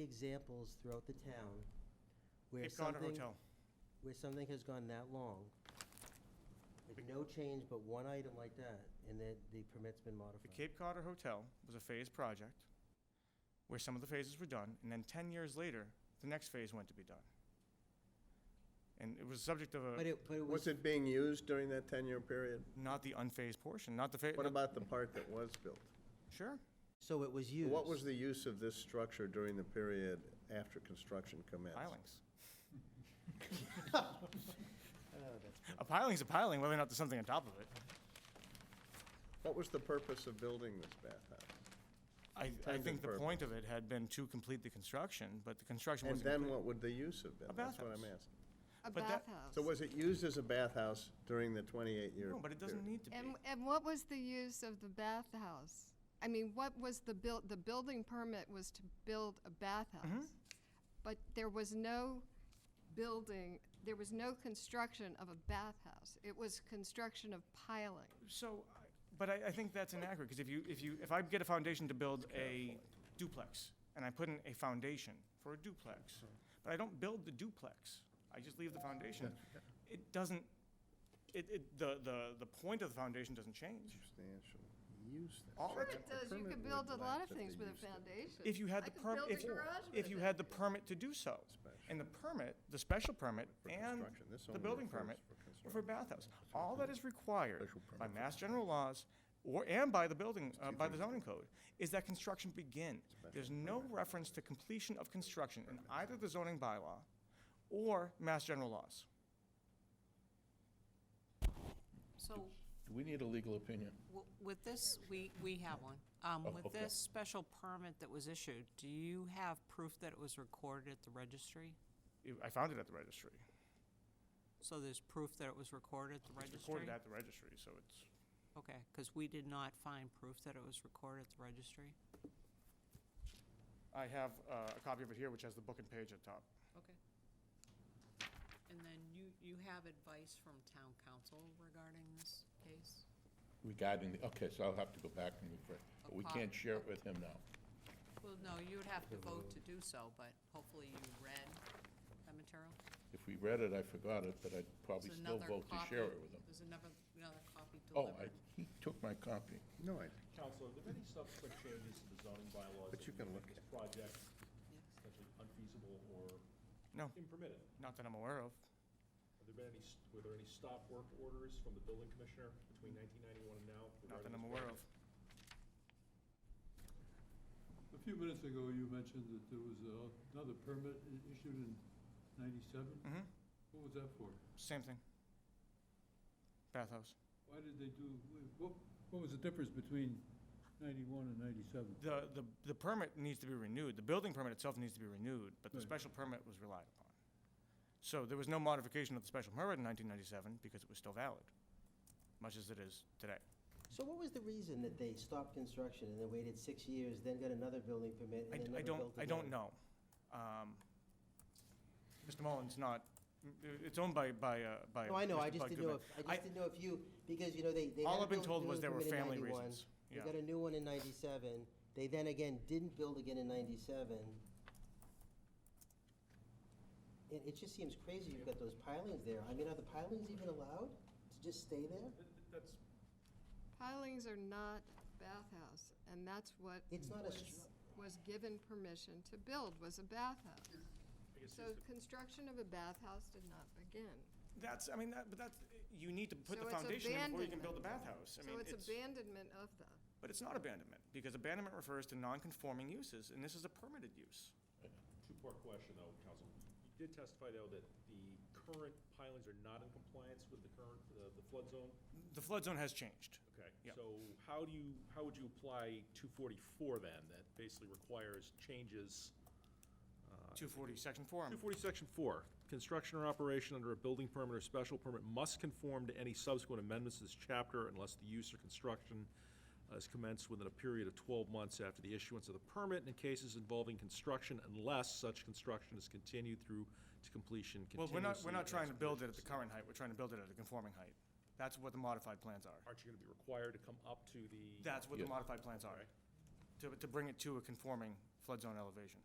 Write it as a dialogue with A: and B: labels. A: examples throughout the town where
B: Cape Cod
A: something,
B: Hotel.
A: where something has gone that long, with no change but one item like that, and that the permit's been
B: The
A: modified.
B: Cape Cod Hotel was a phased project where some of the phases were done, and then 10 years later, the next phase went to be done. And it was subject of
A: But
B: a,
A: it, but it
C: Was
A: was,
C: it being used during that 10-year period?
B: not the unphased portion, not the
C: What
B: phase,
C: about the part that was built?
B: sure.
A: so it was used.
C: What was the use of this structure during the period after construction commenced?
B: pilings. A piling's a piling, whether or not there's something on top of it.
C: What was the purpose of building this bathhouse?
B: I, I
C: Intended
B: think the
C: purpose.
B: point of it had been to complete the construction, but the construction
C: And
B: wasn't
C: then
B: complete.
C: what would the use have been?
B: A
C: That's what I'm
B: bathhouse.
C: asking.
D: A
B: But that-
D: bathhouse.
C: So was it used as a bathhouse during the 28-year period?
B: No, but it doesn't need to be.
D: And, and what was the use of the bathhouse? I mean, what was the build, the building permit was to build a bathhouse.
B: Mm-hmm.
D: But there was no building, there was no construction of a bathhouse. It was construction of piling.
B: So, I- but I, I think that's inaccurate, because if you, if you, if I get a foundation to build a duplex, and I put in a foundation for a duplex, but I don't build the duplex, I just leave the foundation, it doesn't, it, it, the, the, the point of the foundation doesn't change.
C: Substantial use. then.
B: All
C: So
B: it-
D: Sure it
C: the
D: does, you
C: permit
D: could
C: would
D: build a lot
C: lack
D: of
C: that
D: things
C: they
D: with a
C: used it.
D: foundation.
B: If you had the
D: I could
B: permit,
D: build
B: if,
D: a garage
B: if
D: with
B: you
D: it.
B: had the permit to do so,
C: Special.
B: and the permit, the special permit
C: For
B: and
C: construction. This
B: the
C: only
B: building
C: refers
B: permit
C: for
B: were
C: construction.
B: for bathhouse, all that is required
C: Special permit
B: by
C: for
B: mass general laws or, and by the building, uh, by the zoning code, is that construction begin. There's no reference to completion of construction in either the zoning bylaw or mass general laws.
E: So
F: Do we need a legal opinion?
E: w- with this, we, we have one. Um,
F: Oh,
E: With
F: okay.
E: this special permit that was issued, do you have proof that it was recorded at the registry?
B: It- I found it at the registry.
E: So there's proof that it was recorded at the
B: It's
E: registry?
B: recorded at the registry, so it's,
E: Okay, because we did not find proof that it was recorded at the registry.
B: I have uh, a copy of it here, which has the book and page at top.
E: Okay. And then you, you have advice from town council regarding this case?
F: Regarding, the okay, so I'll have to go back and refer, but we can't share it with him now.
E: Well, no, you would have to vote to do so, but hopefully you read that material?
F: If we read it, I forgot it, but I'd probably
E: There's
F: still
E: another
F: vote to
E: copy-
F: share it with him.
E: There's another, another copy
F: Oh, I,
E: delivered.
F: he took my copy.
C: No, I,
G: Counselor, are there any subsequent changes to the zoning bylaws?
C: But you
G: that
C: can
G: make
C: look
G: This
C: at-
G: project potentially unfeasible or
B: No,
G: impermitted.
B: not that I'm aware of.
G: Have there been any, s- were there any stop work orders from the building commissioner between 1991 and now?
B: Not
G: regarding
B: that I'm
G: this
B: aware
G: project?
B: of.
H: A few minutes ago, you mentioned that there was uh, another permit i- issued in 97?
B: Mm-hmm.
H: What was that for?
B: Same thing. Bathhouse.
H: Why did they do, what, what was the difference between 91 and 97?
B: The, the, the permit needs to be renewed, the building permit itself needs to be renewed, but the
H: Right.
B: special permit was relied upon. So there was no modification of the special permit in nineteen ninety-seven because it was still valid, much as it is today.
A: So what was the reason that they stopped construction and then waited six years, then got another building permit,
B: I,
A: and then
B: I
A: never built
B: don't, I don't
A: again?
B: know. Um, Mr. Mullins not, it's owned by, by, uh, by.
A: No, I know, I
B: Mr.
A: just
B: Bud
A: didn't know,
B: Goodman.
A: if I just didn't know if you, because, you know, they, they.
B: All
A: had a
B: I've been
A: buil-
B: told was there were
A: building permit in
B: family
A: 91.
B: reasons.
A: They
B: Yeah.
A: got a new one in ninety-seven, they then again didn't build again in ninety-seven. It, it just seems crazy, you've got those pilings there, I mean, are the pilings even allowed to just stay there?
G: Th- th- That's,
D: Pilings are not bathhouse, and that's what
A: It's not a
D: was-
A: stru-
D: was given permission to build, was a bathhouse.
G: I guess,
D: So
G: it's-
D: construction of a bathhouse did not begin.
B: That's, I mean, that, but that's, you need to put
D: So
B: the
D: it's
B: foundation in before you can
D: abandonment.
B: build the bathhouse. I
D: So
B: mean,
D: it's abandonment of the,
B: But it's not abandonment, because abandonment refers to non-conforming uses, and this is a permitted use.
G: two-part question though, counsel. You did testify though that the current pilings are not in compliance with the current, the the flood zone?
B: The flood zone has changed.
G: Okay,
B: Yeah.
G: so how do you, how would you apply 244 then? That basically requires changes uh,
B: 240, section four.
G: 240, Section 4, construction or operation under a building permit or special permit must conform to any subsequent amendments to this chapter unless the use or construction uh, is commenced within a period of 12 months after the issuance of the permit and in cases involving construction unless such construction is continued through to completion
B: Well,
G: continuously.
B: we're not, we're not trying to build it at the current
G: current.
B: height, we're trying to build it at a conforming height. That's what the modified plans are.
G: Aren't you going to be required to come up to the?
B: That's what the
F: Yeah.
B: modified plans are, to, to bring it to a conforming flood zone elevation.